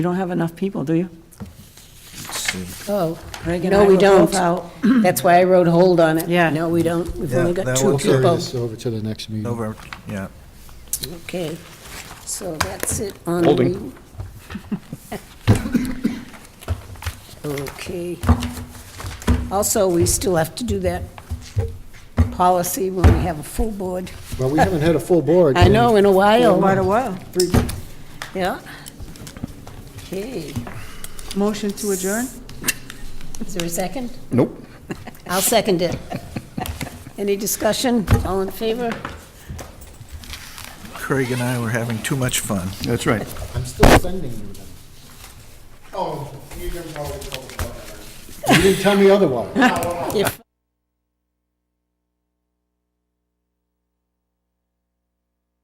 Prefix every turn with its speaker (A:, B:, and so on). A: You don't have enough people, do you?
B: Oh,
A: Greg and
B: No,
A: I
B: we
A: were both
B: don't.
A: out.
B: that's why I wrote hold on it.
A: Yeah.
B: No, we don't. We've only
C: Yeah,
B: got
C: that
B: two
C: will carry
B: people.
C: us
D: over to the next meeting.
C: Over, yeah.
B: Okay, so that's it on.
E: Holding.
B: the- Okay. Also, we still have to do that policy when we have a full board.
D: Well, we haven't had a full board.
B: I know, in a
A: Quite a
B: while,
A: while.
B: yeah. Okay,
A: Motion to adjourn?
B: is there a second?
E: Nope.
B: I'll second it. Any discussion? All in favor?
C: Craig and I were having too much fun.
E: That's right.
D: I'm still sending you them.
F: Oh, you can probably call it.
D: You didn't tell me otherwise.
B: If